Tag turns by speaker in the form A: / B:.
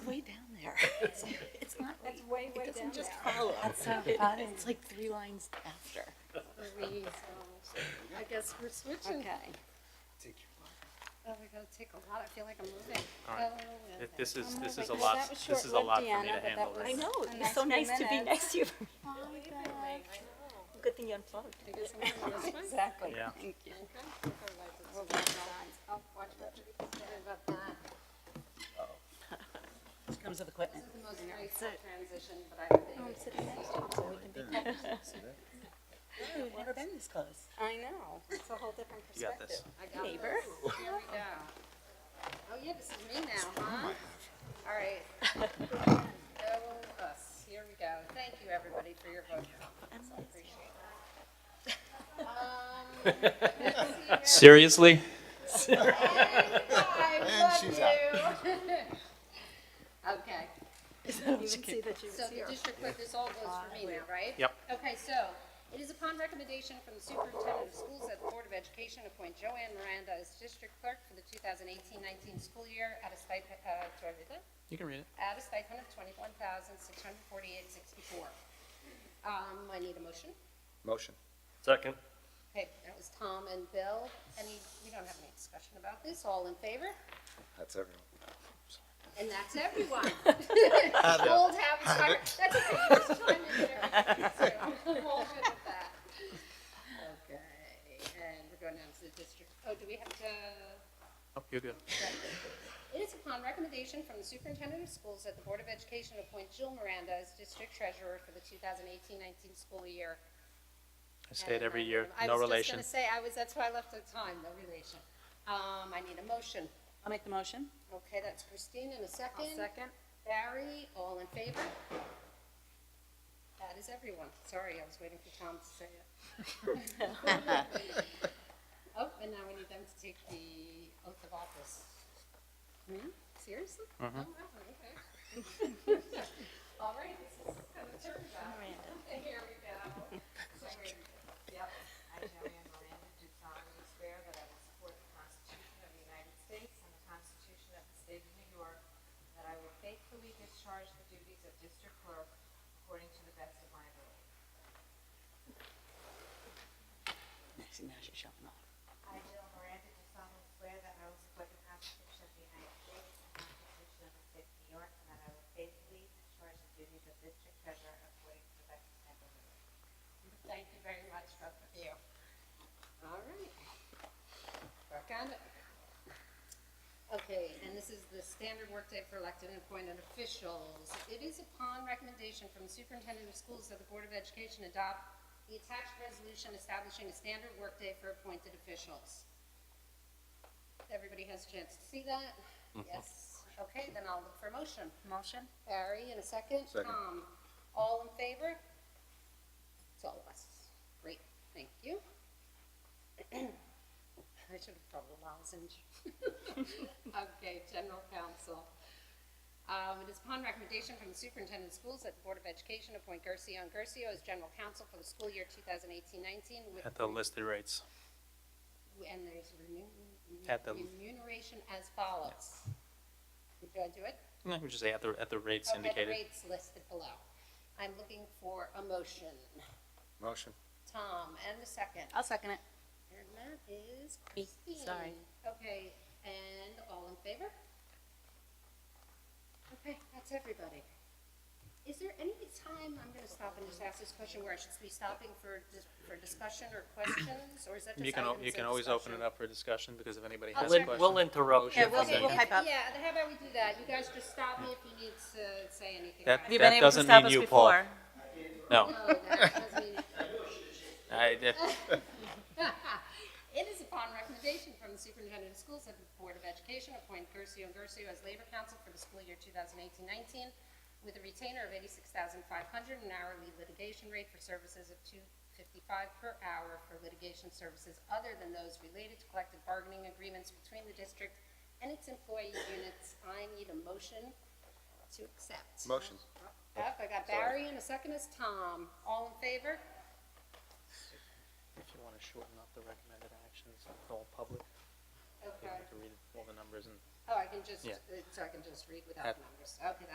A: just follow up.
B: That's so
A: It-
B: funny.
A: It's like three lines after.
C: Louise, so I guess we're switching.
A: Okay.
C: Oh, we gotta take a lot, I feel like I'm moving.
D: All right.
C: Oh, yeah.
D: If This is,
C: I'm
D: this
C: gonna
D: is a
C: wait, 'cause
D: lot,
C: that was
D: this is a
C: short-lived,
D: lot for me
C: Deanna,
D: to
C: but that
D: handle
C: was-
D: right
A: I know,
C: A
A: it's so
C: nice
A: nice
C: few
A: to be
C: minutes.
A: next to you.
C: Oh, my God.
A: Good thing you unplugged.
C: I guess I'm gonna miss one.
B: Exactly.
D: Yeah.
B: Thank you.
C: We'll watch that. I'll watch what you said about that.
B: Comes with equipment.
C: The most graceful transition, but I think.
B: We've never been this close.
C: I know, it's a whole different
D: You got this.
C: perspective. I got this. Here we go. Oh, yeah, this is me now, huh? All right. Go us, here we go. Thank you, everybody, for your vote. I appreciate it. Um, let's see,
D: Seriously?
C: I love
E: she's
C: you. Okay,
A: You can see that you
C: so the district clerk, this all goes for me now, right?
D: Yep.
C: Okay, so, it is upon recommendation from the superintendent of schools that the Board of Education appoint Joanne Miranda as district clerk for the 2018-19 school year at a stipend, uh, do I read that?
D: You can read it.
C: At a stipend of twenty-one thousand, six hundred forty-eight, sixty-four. Um, I need a motion.
E: Motion.
D: Second.
C: Okay, that was Tom and Bill. Any, we don't have any discussion about this. All in favor?
E: That's everyone.
C: And that's everyone. Old habits are, that's okay, you just chime in there. So, I'm all good with that. Okay, and we're going down to the district, oh, do we have to?
D: Oh, you're good.
C: It is upon recommendation from the superintendent of schools that the Board of Education appoint Jill Miranda as district treasurer for the 2018-19 school year.
D: I say it
C: And um, I-
D: every year, no
C: I was just
D: relation.
C: gonna say, I was, that's why I left the time, no relation. Um, I need a motion.
B: I'll make the motion.
C: Okay, that's Christine in a 2nd
B: second.
C: Barry, all in favor? That is everyone. Sorry, I was waiting for Tom to say it. Oh, and now we need them to take the oath of office. Hmm? Seriously? Oh, wow, okay. All right, this is kind of turned out. Here we go. So we're-
F: Yep. I, Joanne Miranda, do solemnly swear that I will support the Constitution of the United States and the Constitution of the State of New York, and that I will faithfully discharge the duties of district clerk according to the best of my ability.
B: See, now she's showing off.
F: I, Jill Miranda, do solemnly swear that I will support the Constitution of the United States and the Constitution of the State of New York, and that I will faithfully discharge the duties of district treasurer according to the best of my ability.
C: Thank you very much, both of you. All right. Work on it. Okay, and this is the standard workday for elected and appointed officials. It is upon recommendation from the superintendent of schools that the Board of Education adopt the attached resolution establishing a standard workday for appointed officials. Everybody has a chance to see that? Yes. Okay, then I'll look for a motion.
B: Motion?
C: Barry in a second.
E: Second.
C: Tom, all in favor? It's all of us. Great, thank you. I should have brought a lozenge. Okay, general counsel. Um, It is upon recommendation from the superintendent of schools that the Board of Education appoint Gercio and Gercio as general counsel for the school year 2018-19 with-
D: At the listed rates.
C: and there's remun-
D: At the-
C: remuneration as follows. Did I do it?
D: I would just say at the, at the rates
C: Okay, the
D: indicated.
C: rates listed below. I'm looking for a motion.
E: Motion.
C: Tom, and a second.
B: I'll second it.
C: And that is
A: Oh. Me,
C: Christine.
A: sorry.
C: Okay, and all in favor? Okay, that's everybody. Is there any time, I'm gonna stop and just ask this question, where I should be stopping for, dis- for discussion or questions, or is that just
D: You can, al-
C: items
D: you
C: of
D: can always open it
C: discussion?
D: up for discussion because if anybody
C: I'll
D: has
C: check.
D: questions.
G: We'll interrupt you
B: Yeah, we'll-
G: for that.
B: we'll hype up.
C: Yeah, how about we do that? You guys just stop me if you need to say anything.
D: That-
B: Have you been able to
D: doesn't
B: stop
D: mean
B: us
D: you, Paul.
B: before?
D: No.
C: Oh, that does mean-
D: I, that-
C: It is upon recommendation from the superintendent of schools that the Board of Education appoint Gercio and Gercio as labor counsel for the school year 2018-19 with a retainer of 86500 and an hourly litigation rate for services of 255 per hour for litigation services other than those related to collective bargaining agreements between the district and its employee units. I need a motion to accept.
E: Motion.
C: Up, I got Barry and a second is Tom. All in favor?
D: If you want to shorten up the recommended actions, the all public, you
C: Okay.
D: can read all the numbers and
C: Oh, I can just,
D: Yeah.
C: so I can just read
D: At-
C: without the numbers. Okay,